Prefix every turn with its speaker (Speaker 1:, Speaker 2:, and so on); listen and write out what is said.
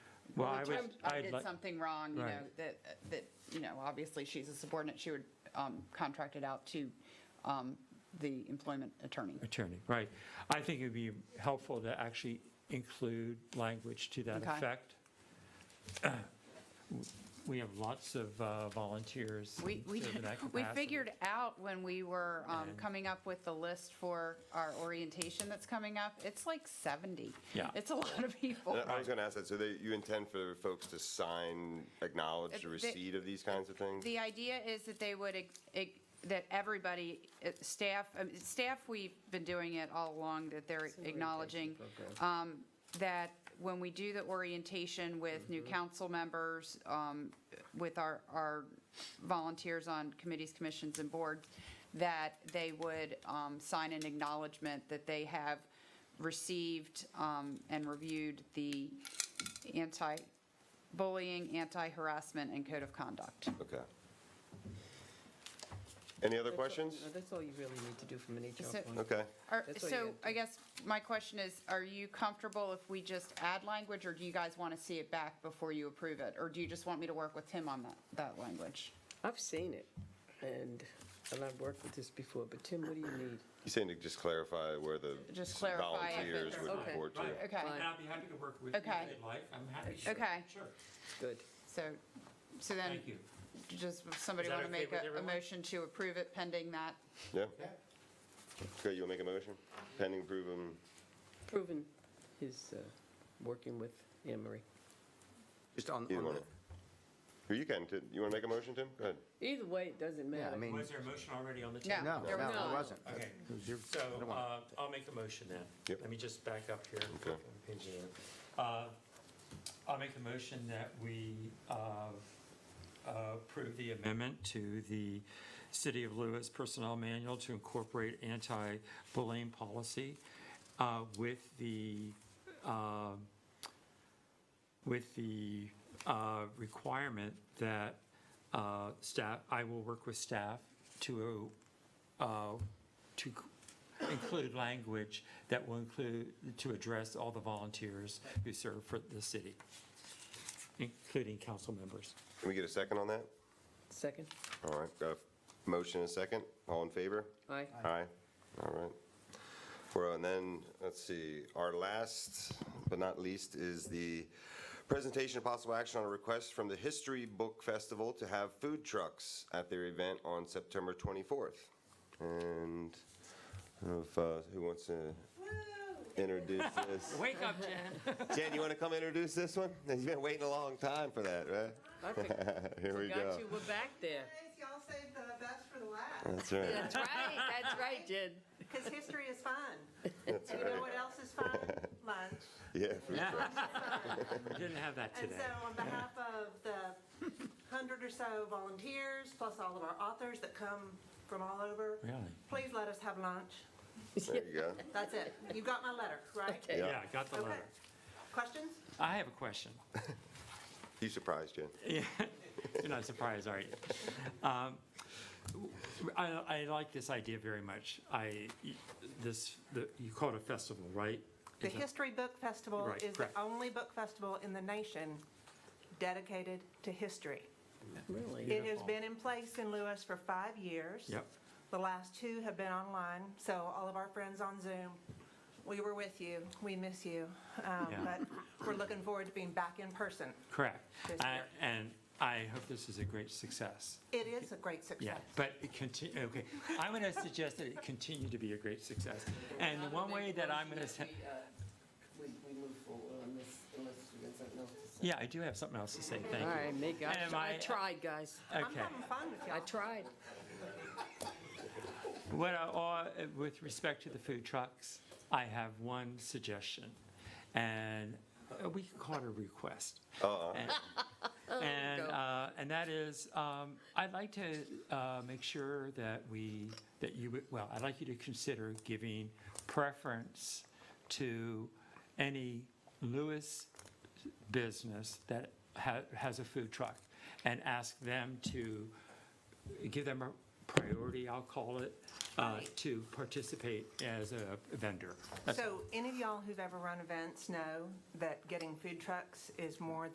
Speaker 1: Well, I
Speaker 2: which
Speaker 1: was-
Speaker 2: I'm- I
Speaker 1: I'd
Speaker 2: did
Speaker 1: like-
Speaker 2: something wrong, you know,
Speaker 1: Right.
Speaker 2: that, that, you know, obviously she's a subordinate, she would um, contract it out to um, the employment attorney.
Speaker 1: attorney, right. I think it'd be helpful to actually include language to that
Speaker 2: Okay.
Speaker 1: effect. We have lots of uh, volunteers.
Speaker 2: We, we,
Speaker 1: in that
Speaker 2: we
Speaker 1: capacity.
Speaker 2: figured out when we were um,
Speaker 1: And-
Speaker 2: coming up with the list for our orientation that's coming up, it's like 70.
Speaker 1: Yeah.
Speaker 2: It's a lot of people.
Speaker 3: Uh, I was going to ask that, so they, you intend for folks to sign, acknowledge the
Speaker 2: Uh, the-
Speaker 3: receipt of these kinds of things?
Speaker 2: The idea is that they would, ex- ex- that everybody, uh, staff, um, staff, we've been doing it all along, that they're acknowledging um, that when we do the orientation with new council members, um, with our, our volunteers on committees, commissions, and boards, that they would um, sign an acknowledgement that they have received um, and reviewed the anti-bullying, anti-harassment, and code of conduct.
Speaker 3: Okay. Any other
Speaker 4: That's all-
Speaker 3: questions?
Speaker 4: no, That's all you really need to do from an HR
Speaker 2: So-
Speaker 4: point.
Speaker 3: Okay.
Speaker 2: Are-
Speaker 4: That's what you
Speaker 2: So
Speaker 4: have to-
Speaker 2: I guess my question is, are you comfortable if we just add language, or do you guys want to see it back before you approve it? Or do you just want me to work with him on that, that language?
Speaker 4: I've seen it, and, and I've worked with this before, but Tim, what do you need?
Speaker 3: You saying to just clarify where the
Speaker 2: Just clarify if
Speaker 3: volunteers
Speaker 2: it's-
Speaker 3: would
Speaker 4: Okay.
Speaker 3: report to?
Speaker 2: Okay,
Speaker 4: Fine.
Speaker 1: I'd be happy to work with you if
Speaker 2: Okay.
Speaker 1: you'd like. I'm happy.
Speaker 2: Okay.
Speaker 1: Sure.
Speaker 4: Good.
Speaker 2: so, so then,
Speaker 1: Thank you.
Speaker 2: just, if somebody
Speaker 1: Is that
Speaker 2: want to
Speaker 1: okay
Speaker 2: make
Speaker 1: with
Speaker 2: a, a
Speaker 1: everyone?
Speaker 2: motion to approve it pending that?
Speaker 3: Yeah? Okay, you'll make a motion? Pending approval, um,
Speaker 4: Proven his uh, working with Anne Marie.
Speaker 5: Just on,
Speaker 3: either
Speaker 5: on
Speaker 3: one.
Speaker 5: the-
Speaker 3: Who you can, Tim. you want to make a motion, Tim? Go ahead.
Speaker 4: Either way, it doesn't matter.
Speaker 5: yeah, I mean,
Speaker 6: Was there a motion already on the
Speaker 2: No.
Speaker 6: table?
Speaker 5: no, no,
Speaker 2: there was
Speaker 4: not.
Speaker 5: it wasn't.
Speaker 6: Okay,
Speaker 5: You're-
Speaker 6: so
Speaker 5: I don't want-
Speaker 6: uh, I'll make the motion then.
Speaker 3: Yep.
Speaker 6: Let me just back up here.
Speaker 3: Okay.
Speaker 6: Page it up. Uh, I'll make the motion that we uh, approve the amendment to the City of Lewis Personnel Manual to incorporate anti-bullying policy uh, with the, uh, with the uh, requirement that uh, staff, I will work with staff to, uh, to c- include language that will include, to address all the volunteers who serve for the city, including council members.
Speaker 3: Can we get a second on that?
Speaker 4: Second?
Speaker 3: All right, got a motion and a second. All in favor?
Speaker 4: Aye.
Speaker 3: Aye. All right. Four oh, and then, let's see, our last but not least is the presentation of possible action on a request from the History Book Festival to have food trucks at their event on September 24th. And I don't know if, uh, who wants to introduce this?
Speaker 6: Wake up, Jen.
Speaker 3: Jen, you want to come introduce this one? You've been waiting a long time for that, right?
Speaker 4: I forgot
Speaker 3: Here we go.
Speaker 4: you, we're back there.
Speaker 7: Guys, y'all saved the best for the last,
Speaker 3: That's right.
Speaker 4: That's right, that's right, Jen.
Speaker 7: because history is fun. And you know what else is fun? Lunch.
Speaker 3: Yeah, food trucks.
Speaker 6: We didn't have that
Speaker 7: And
Speaker 6: today.
Speaker 7: so on behalf of the hundred or so volunteers, plus all of our authors that come from all over,
Speaker 6: Really?
Speaker 7: please let us have lunch.
Speaker 3: There you go.
Speaker 7: That's it. You got my letter, right?
Speaker 3: Yeah.
Speaker 6: Yeah, got the
Speaker 7: Okay.
Speaker 6: letter.
Speaker 7: Questions?
Speaker 6: I have a question.
Speaker 3: You surprised, Jen.
Speaker 6: You're not surprised, are you? Um, I, I like this idea very much. I, this, the- you call it a festival, right?
Speaker 7: The
Speaker 6: It's a-
Speaker 7: History Book Festival
Speaker 6: Right,
Speaker 7: is the
Speaker 6: correct.
Speaker 7: only book festival in the nation dedicated to history.
Speaker 4: Really?
Speaker 7: It has been in place in Lewis for five years.
Speaker 6: Yep.
Speaker 7: The last two have been online, so all of our friends on Zoom, we were with you, we miss you. um,
Speaker 6: Yeah.
Speaker 7: But we're looking forward to being back in person.
Speaker 6: Correct.
Speaker 7: Yes,
Speaker 6: I-
Speaker 7: sir.
Speaker 6: And I hope this is a great success.
Speaker 7: It is a great
Speaker 6: Yeah,
Speaker 7: success.
Speaker 6: but it continue, okay. I'm going to suggest that it continue to be a great success. And the one way that I'm going to,
Speaker 4: We, we move forward on this unless you got something else to say.
Speaker 6: yeah, I do have something else to say, thank
Speaker 4: All
Speaker 6: you.
Speaker 4: right, make, I
Speaker 6: Am
Speaker 4: I
Speaker 6: I-
Speaker 4: tried, guys.
Speaker 7: I'm
Speaker 6: Okay.
Speaker 7: having fun with
Speaker 4: I
Speaker 7: y'all.
Speaker 4: tried.
Speaker 6: What, I- or, uh, with respect to the food trucks, I have one suggestion, and uh, we can call it a request. And- And, uh, and that is, um, I'd like to uh, make sure that we, that you, would- well, I'd like you to consider giving preference to any Lewis business that ha- has a food truck, and ask them to give them a priority, I'll call it, uh, to participate as a vendor. That's
Speaker 7: So any of y'all who've ever run events know that getting food trucks is more